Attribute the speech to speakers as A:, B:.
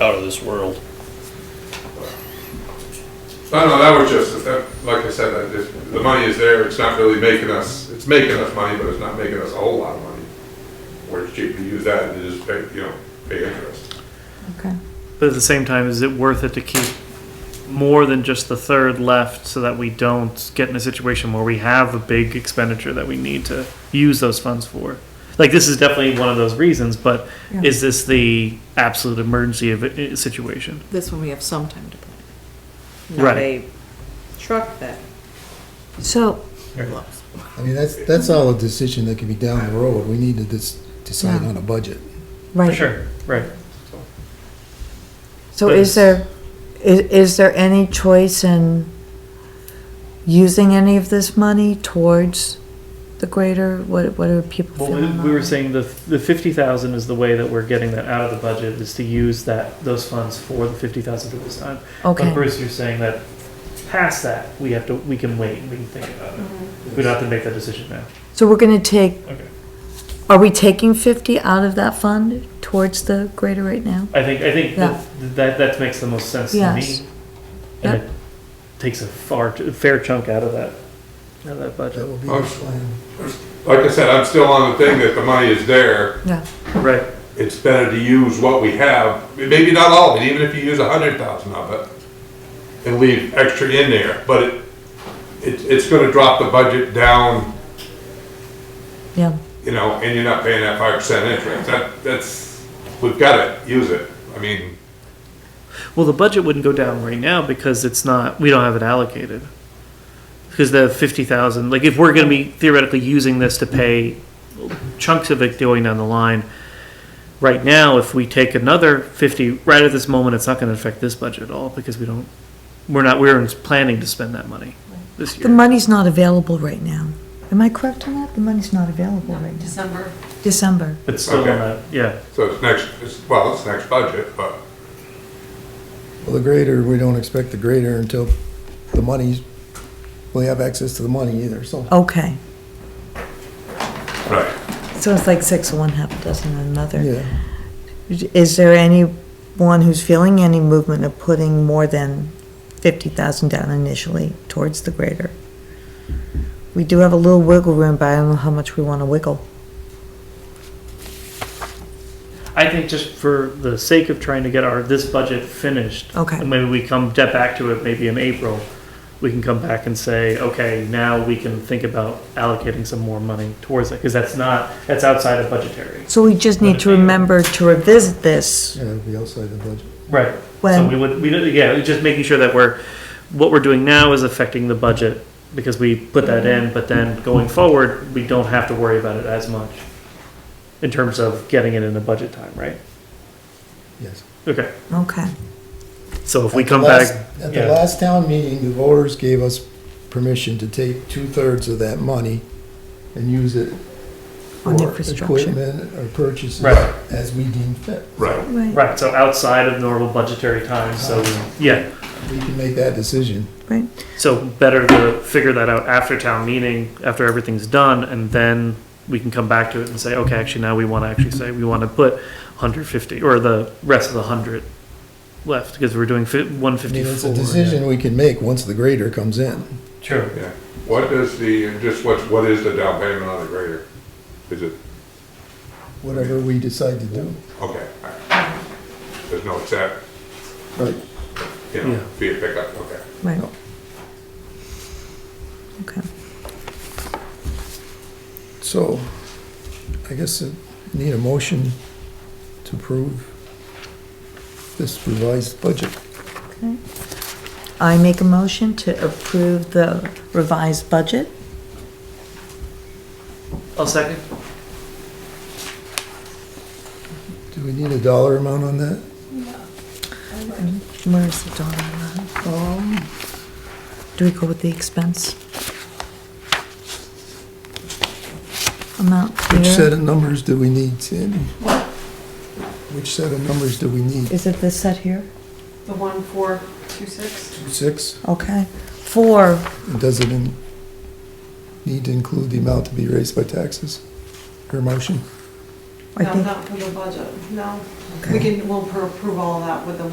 A: out of this world.
B: No, no, that was just, that- like I said, that just, the money is there, it's not really making us, it's making us money, but it's not making us a whole lot of money. Where it's cheap to use that and just pay, you know, pay interest.
C: Okay.
D: But at the same time, is it worth it to keep more than just the third left so that we don't get in a situation where we have a big expenditure that we need to use those funds for? Like, this is definitely one of those reasons, but
C: Yeah.
D: is this the absolute emergency of it, uh, situation?
C: This one we have some time to plan.
D: Right.
E: not a truck that
C: So,
E: looks.
F: I mean, that's, that's all a decision that can be down the road. We need to just decide
C: Yeah.
F: on a budget.
C: right.
D: Sure, right.
C: So
D: But
C: is
D: it's-
C: there, is, is there any choice in using any of this money towards the greater, what, what are people
D: Well, we,
C: feeling?
D: we were
C: about it?
D: saying the, the fifty thousand is the way that we're getting that out of the budget, is to use that, those funds for the fifty thousand for this time. But
C: Okay,
D: Bruce, you're saying that past that, we have to, we can wait, and we can think about it.
C: Mm-hmm.
D: We don't have to make that decision now.
C: so we're gonna take,
D: Okay.
C: are we taking fifty out of that fund towards the greater right now?
D: I think, I think
C: Yeah.
D: that, that, that makes the most sense to
C: Yes.
D: me. And it takes a far, a fair chunk out of that, out of that
F: That
D: budget.
F: will be
B: Oh.
F: the plan.
B: Like I said, I'm still on the thing that the money is there,
C: Yeah,
D: Right.
B: it's better to use what we have, maybe not all of it, even if you use a hundred thousand of it. And leave extra in there, but it, it's, it's gonna drop the budget down,
C: yeah,
B: you know, and you're not paying that five percent interest, that, that's, we've gotta use it, I mean.
D: Well, the budget wouldn't go down right now because it's not, we don't have it allocated. Because the fifty thousand, like if we're gonna be theoretically using this to pay chunks of it going down the line, right now, if we take another fifty, right at this moment, it's not gonna affect this budget at all because we don't, we're not, we're planning to spend that money this
C: the
D: year.
C: money's not available right now. Am I correct on that? The money's not available right now,
E: December.
C: December.
D: It's still
B: Okay.
D: not, yeah.
B: So it's next, it's, well, it's next budget, but
F: Well, the grader, we don't expect the grader until the money's, we have access to the money either, so.
C: Okay,
B: right.
C: so it's like six of one, half a dozen of another.
F: Yeah,
C: Is there anyone who's feeling any movement of putting more than fifty thousand down initially towards the grader? We do have a little wiggle room, but I don't know how much we wanna wiggle.
D: I think just for the sake of trying to get our, this budget finished.
C: Okay.
D: And maybe we come, get back to it maybe in April, we can come back and say, okay, now we can think about allocating some more money towards it, because that's not, that's outside of budgetary.
C: So we just need to remember to revisit this
F: yeah, it'll be outside the budget.
D: Right. So we
C: when,
D: would, we, don't- yeah, just making sure that we're, what we're doing now is affecting the budget, because we put that in, but then going forward, we don't have to worry about it as much in terms of getting it in the budget time, right?
F: Yes.
D: Okay,
C: okay,
D: so if we
F: At the
D: come
F: last-
D: back,
F: At
D: yeah.
F: the last town meeting, the voters gave us permission to take two-thirds of that money and use it
C: On
F: for
C: infrastructure.
F: equipment or purchases
D: Right.
F: as we deem fit.
B: Right.
C: right,
D: Right, so outside of normal budgetary time, so,
F: Uh-huh.
D: yeah,
F: We can make that decision.
C: right,
D: so better to figure that out after town meeting, after everything's done, and then we can come back to it and say, okay, actually, now we wanna actually say, we wanna put hundred fifty, or the rest of the hundred left, because we're doing one
F: I mean, it's
D: fifty-four.
F: a decision we can make once the grader comes in.
D: True.
B: Yeah. What does the, just what's, what is the down payment on the grader? Is it,
F: whatever we decide to do.
B: okay, all right. there's no exact,
F: Right.
B: you
D: Yeah.
B: know, fee to pick up, okay.
C: right. Okay,
F: So, I guess it need a motion to approve this revised budget.
C: okay. I make a motion to approve the revised budget.
D: I'll second.
F: Do we need a dollar amount on that?
C: Where's the dollar amount? Oh.
F: Um,
C: Do we go with the expense? Amount
F: Which set
C: here?
F: of numbers do we need, Sandy? Which set of numbers do we need?
C: Is it this set here?
E: The one four two six.
F: Six?
C: Okay. Four,
F: And does it in- need to include the amount to be raised by taxes? Your motion?
C: I
E: No,
C: think,
E: not for the budget, no.
C: Okay.
E: We can, we'll pro- approve all that with the